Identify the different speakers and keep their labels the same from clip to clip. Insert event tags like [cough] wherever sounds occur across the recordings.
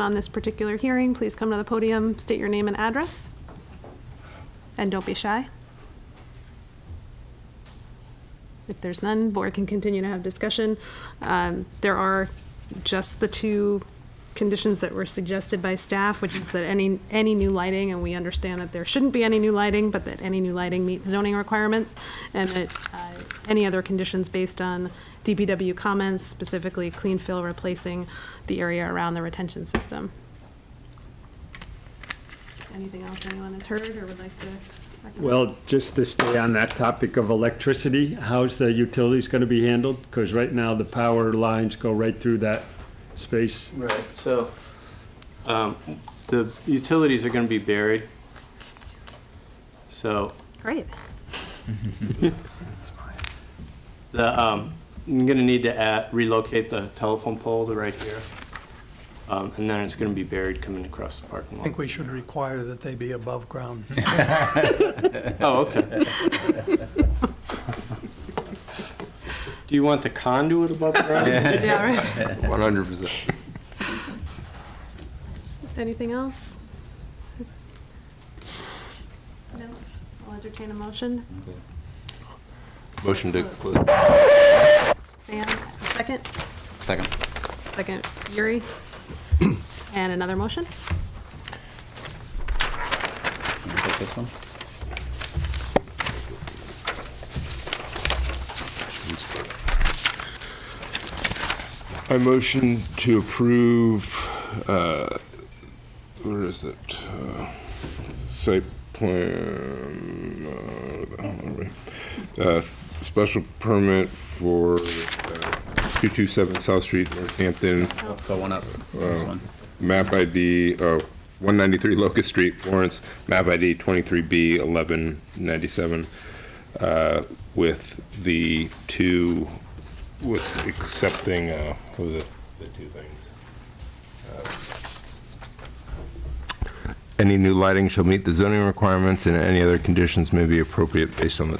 Speaker 1: on this particular hearing, please come to the podium, state your name and address, and don't be shy. If there's none, board can continue to have discussion. Um, There are just the two conditions that were suggested by staff, which is that any, any new lighting, and we understand that there shouldn't be any new lighting, but that any new lighting meets zoning requirements, and that uh, any other conditions based on DPW comments, specifically clean fill replacing the area around the retention system. Anything else anyone has heard or would like to? recommend?
Speaker 2: Well, just to stay on that topic of electricity, how's the utilities going to be handled? Because right now, the power lines go right through that space.
Speaker 3: Right, so um, the utilities are going to be buried. So
Speaker 1: Great.
Speaker 3: the, um, I'm going to need to add- relocate the telephone pole to right here. Um, And then it's going to be buried coming across the parking
Speaker 4: I think
Speaker 3: lot.
Speaker 4: we should require that they be above ground.
Speaker 3: Oh,
Speaker 4: [laughs]
Speaker 3: okay. Do you want the conduit above ground?
Speaker 1: Yeah, right.
Speaker 5: One hundred percent.
Speaker 1: Anything else? No? I'll entertain a motion.
Speaker 5: Motion to close.
Speaker 1: Sam, second?
Speaker 5: Second.
Speaker 1: Second, Yuri. And another motion?
Speaker 5: Take this one.
Speaker 6: I motion to approve, uh, where is it? Uh, Site plan, uh, oh, where we- uh, s- special permit for uh, 227 South Street, Northampton,
Speaker 5: Go one up. This one.
Speaker 6: map ID, oh, 193 Locust Street, Florence, map ID 23B 1197, uh, with the two, with accepting, uh, what was it? The two things. Uh, Any new lighting shall meet the zoning requirements, and any other conditions may be appropriate based on the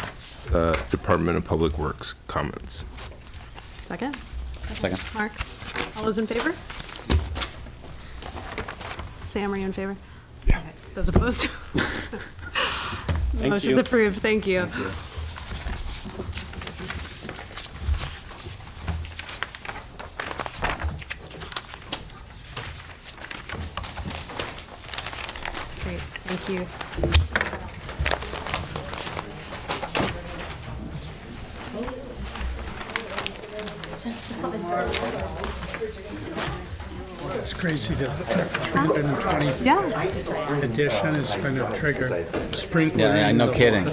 Speaker 6: uh, Department of Public Works comments.
Speaker 1: Second?
Speaker 5: Second.
Speaker 1: Mark? All those in favor? Sam, are you in favor? Yeah. Those opposed? [laughs] Motion's
Speaker 3: you.
Speaker 1: approved, thank you. Great, thank you.
Speaker 4: It's crazy that a 320
Speaker 1: Yeah,
Speaker 4: addition is going to trigger sprinkler.
Speaker 5: Yeah, yeah,
Speaker 4: in
Speaker 5: no
Speaker 4: the-
Speaker 5: kidding.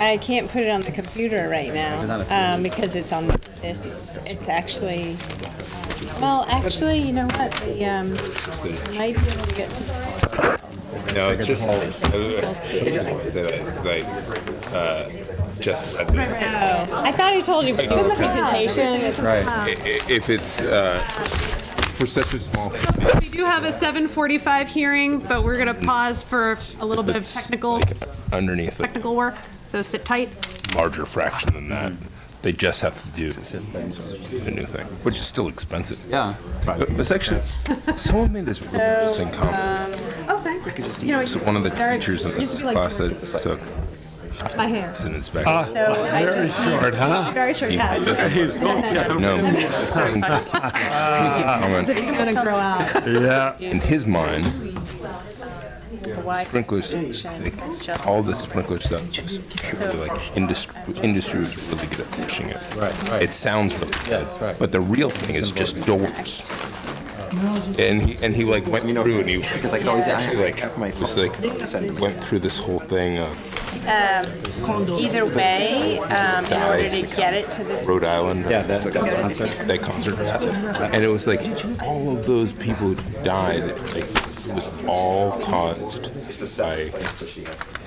Speaker 7: I can't put it on the computer right now um, because it's on this. It's actually, well, actually, you know what? The um, might be able to get to
Speaker 6: No, it's just, because I uh, just read this.
Speaker 7: Oh, I thought I told you, but the presentation.
Speaker 5: Right.
Speaker 6: I- i- If it's, uh, for such a small,
Speaker 1: we do have a 7:45 hearing, but we're going to pause for a little bit of technical,
Speaker 6: underneath a
Speaker 1: technical work, so sit tight.
Speaker 6: larger fraction than that,
Speaker 1: Mm-hmm.
Speaker 6: they just have to do the new thing, which is still expensive.
Speaker 5: Yeah.
Speaker 6: But It's actually, someone made this really interesting comment.
Speaker 1: Okay. You know, it
Speaker 6: So
Speaker 1: used
Speaker 6: one of the
Speaker 1: to be very-
Speaker 6: teachers in
Speaker 1: used to
Speaker 6: this
Speaker 1: be like
Speaker 6: class
Speaker 1: yours.
Speaker 6: that took
Speaker 1: My hair.
Speaker 6: an inspection.
Speaker 7: So I just need-
Speaker 2: Ah, Short, huh?
Speaker 7: very short. Yes.
Speaker 6: No. Comment.
Speaker 1: It's gonna grow out.
Speaker 2: Yeah.
Speaker 6: In his mind,
Speaker 7: The wide
Speaker 6: sprinklers,
Speaker 7: section, just-
Speaker 6: all this sprinkler stuff is purely like industry, industry was really good at pushing it.
Speaker 5: Right, right.
Speaker 6: It sounds really good,
Speaker 5: Yes, right.
Speaker 6: but the real thing is just doors. And he and he like went through and he because I
Speaker 5: could always-
Speaker 6: actually like was like went through this whole thing of
Speaker 7: Either way, um, in order to get it to this,
Speaker 6: Rhode Island. Yeah, that
Speaker 7: go to the
Speaker 6: that concert, and it was like all of those people who died. Like, it was all caused by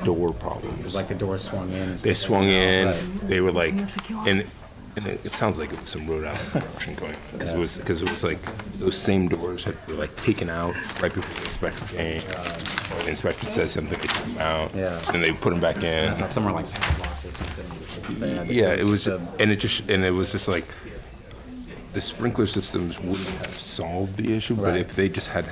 Speaker 6: door problems.
Speaker 5: Like the door swung in.
Speaker 6: They swung in. They were like, and, and it, it sounds like it was some Rhode Island corruption going because it was because it was like those same doors had were like taken out right before the inspector came. The inspector says something, they took them out,
Speaker 5: Yeah.
Speaker 6: and they put them back in.
Speaker 5: Somewhere like padlock or something. which is bad.
Speaker 6: Yeah, it was, and it just, and it was just like, the sprinkler systems wouldn't have solved the issue, but
Speaker 5: Right.
Speaker 6: if they just had